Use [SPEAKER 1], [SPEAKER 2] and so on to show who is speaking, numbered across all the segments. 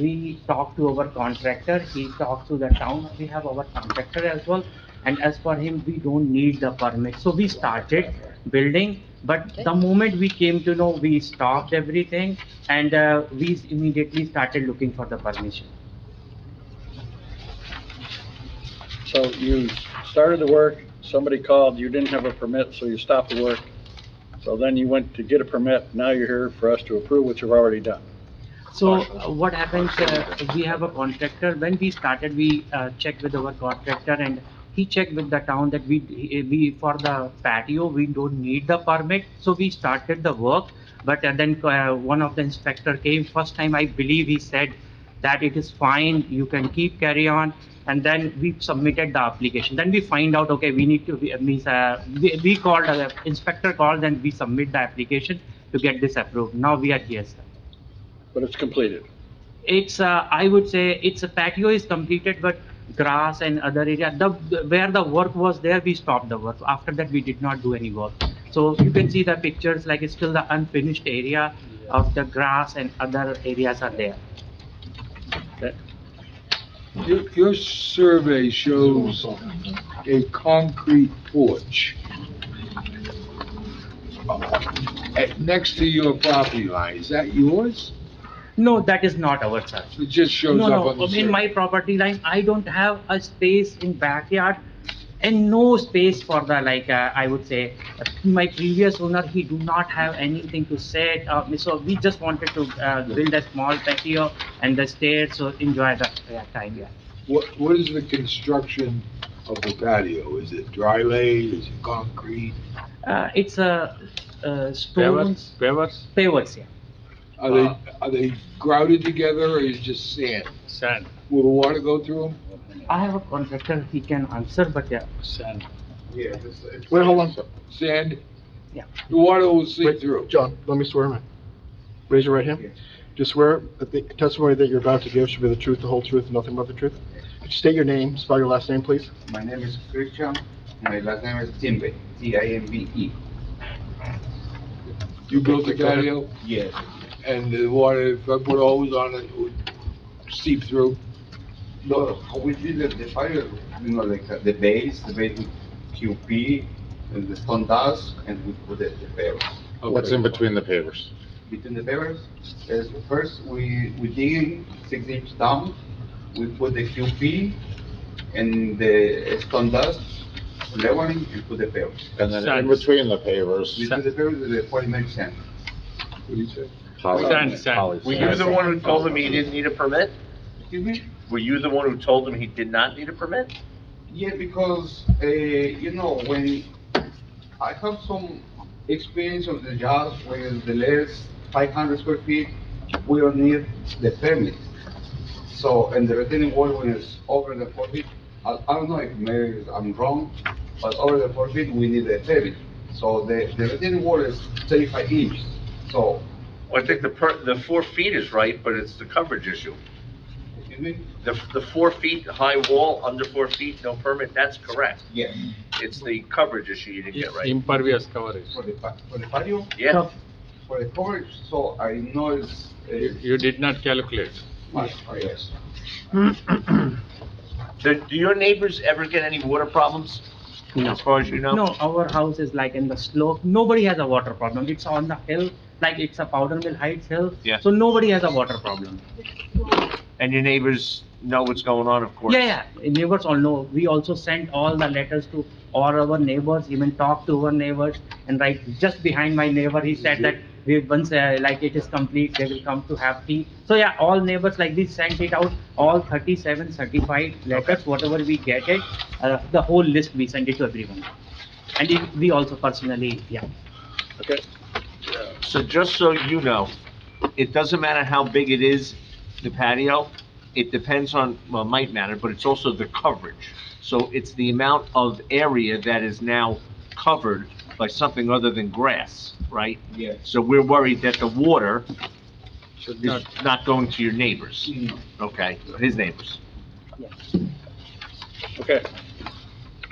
[SPEAKER 1] we talk to our contractor, he talks to the town, we have our contractor as well. And as for him, we don't need the permit. So we started building, but the moment we came to know, we stopped everything and uh, we immediately started looking for the permission.
[SPEAKER 2] So you started the work, somebody called, you didn't have a permit, so you stopped the work. So then you went to get a permit, now you're here for us to approve what you've already done.
[SPEAKER 1] So uh, what happens, uh, we have a contractor, when we started, we uh, checked with our contractor and he checked with the town that we, we, for the patio, we don't need the permit, so we started the work. But uh, then uh, one of the inspector came, first time I believe he said that it is fine, you can keep carry on. And then we submitted the application, then we find out, okay, we need to, we- means, uh, we we called, uh, inspector called and we submit the application to get this approved, now we are here, sir.
[SPEAKER 2] But it's completed.
[SPEAKER 1] It's, uh, I would say, it's a patio is completed, but grass and other area, the, where the work was there, we stopped the work. After that, we did not do any work. So you can see the pictures, like it's still the unfinished area of the grass and other areas are there.
[SPEAKER 3] Your, your survey shows a concrete porch uh, next to your property line. Is that yours?
[SPEAKER 1] No, that is not our sir.
[SPEAKER 3] It just shows
[SPEAKER 1] No,
[SPEAKER 3] up on
[SPEAKER 1] no,
[SPEAKER 3] the
[SPEAKER 1] in my
[SPEAKER 3] survey.
[SPEAKER 1] property line, I don't have a space in backyard and no space for the, like, uh, I would say, my previous owner, he do not have anything to sit, uh, so we just wanted to, uh, build a small patio and the stairs, so enjoy the uh, time, yeah.
[SPEAKER 3] What, what is the construction of the patio? Is it dry laid? Is it concrete?
[SPEAKER 1] Uh, it's a, uh,
[SPEAKER 4] Pavers,
[SPEAKER 1] stones,
[SPEAKER 4] pavers,
[SPEAKER 1] pavers, yeah.
[SPEAKER 3] Are
[SPEAKER 1] Uh,
[SPEAKER 3] they, are they grouted together or is it just sand?
[SPEAKER 4] sand,
[SPEAKER 3] Will the water go through them?
[SPEAKER 1] I have a contractor, he can answer, but yeah,
[SPEAKER 4] sand.
[SPEAKER 5] Yeah.
[SPEAKER 6] Wait, hold on. a sec.
[SPEAKER 3] Sand?
[SPEAKER 1] Yeah.
[SPEAKER 3] The water will seep
[SPEAKER 6] Wait,
[SPEAKER 3] through.
[SPEAKER 6] John, let me swear, man. Raise your right hand. Do you swear that the testimony that you're about to give should be the truth, the whole truth, and nothing but the truth? Could you state your name, spell your last name, please?
[SPEAKER 5] My name is Christian, my last name is Timbe, T I M B E.
[SPEAKER 3] You built the
[SPEAKER 6] Okay, go ahead.
[SPEAKER 3] patio
[SPEAKER 5] Yes.
[SPEAKER 3] and the water, if I put a hose on it, it would seep through.
[SPEAKER 5] No, how we did it, the fire, you know, like uh, the base, the base with QP and the stone dust and we put it the pavers.
[SPEAKER 3] What's in between?
[SPEAKER 5] Between the pavers, is first we, we dig in six inch down, we put the QP and the stone dust leveling and put the pavers.
[SPEAKER 7] And then in
[SPEAKER 4] Sand.
[SPEAKER 7] between the pavers.
[SPEAKER 5] Between the pavers, the polymer sand.
[SPEAKER 4] Sand, sand.
[SPEAKER 8] Were you the one who told him he didn't need a permit?
[SPEAKER 5] Excuse me?
[SPEAKER 8] Were you the one who told him he did not need a permit?
[SPEAKER 5] Yeah, because, uh, you know, when I have some experience of the jobs where the less five hundred square feet, we don't need the permit. So, and the retaining wall when it's over the four feet, I, I don't know if maybe I'm wrong, but over the four feet, we need a permit. So the, the retaining wall is thirty-five inches, so,
[SPEAKER 8] Well, I think the per, the four feet is right, but it's the coverage issue.
[SPEAKER 5] excuse me?
[SPEAKER 8] The, the four feet high wall, under four feet, no permit, that's correct.
[SPEAKER 5] Yes,
[SPEAKER 8] It's the coverage issue you didn't get right.
[SPEAKER 4] Impervious coverage.
[SPEAKER 5] for the, pa- for the patio,
[SPEAKER 8] Yeah,
[SPEAKER 5] for the coverage, so I know it's,
[SPEAKER 4] You
[SPEAKER 5] uh,
[SPEAKER 4] you did not calculate.
[SPEAKER 5] much, yes.
[SPEAKER 8] do, do your neighbors ever get any water problems? As far as you know?
[SPEAKER 1] No, our house is like in the slope, nobody has a water problem, it's on the hill, like it's a powder mill heights hill.
[SPEAKER 8] Yeah.
[SPEAKER 1] So nobody has a water problem.
[SPEAKER 8] And your neighbors know what's going on, of course?
[SPEAKER 1] Yeah, yeah, neighbors all know. We also sent all the letters to all our neighbors, even talked to our neighbors. And right, just behind my neighbor, he said that we once, uh, like it is complete, they will come to have tea. So yeah, all neighbors like this sent it out, all 37 certified letters, whatever we get it, uh, the whole list, we send it to everyone. And it- we also personally, yeah.
[SPEAKER 2] Okay,
[SPEAKER 8] So just so you know, it doesn't matter how big it is, the patio, it depends on, well, it might matter, but it's also the coverage. So it's the amount of area that is now covered by something other than grass, right?
[SPEAKER 5] Yes.
[SPEAKER 8] So we're worried that the water
[SPEAKER 4] Should
[SPEAKER 8] is
[SPEAKER 4] not. Mm-hmm.
[SPEAKER 8] not going to your neighbors,
[SPEAKER 5] No.
[SPEAKER 8] okay, his neighbors.
[SPEAKER 2] okay.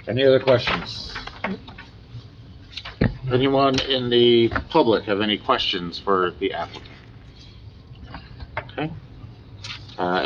[SPEAKER 7] Any other questions? Anyone in the public have any questions for the applicant? Okay. Uh,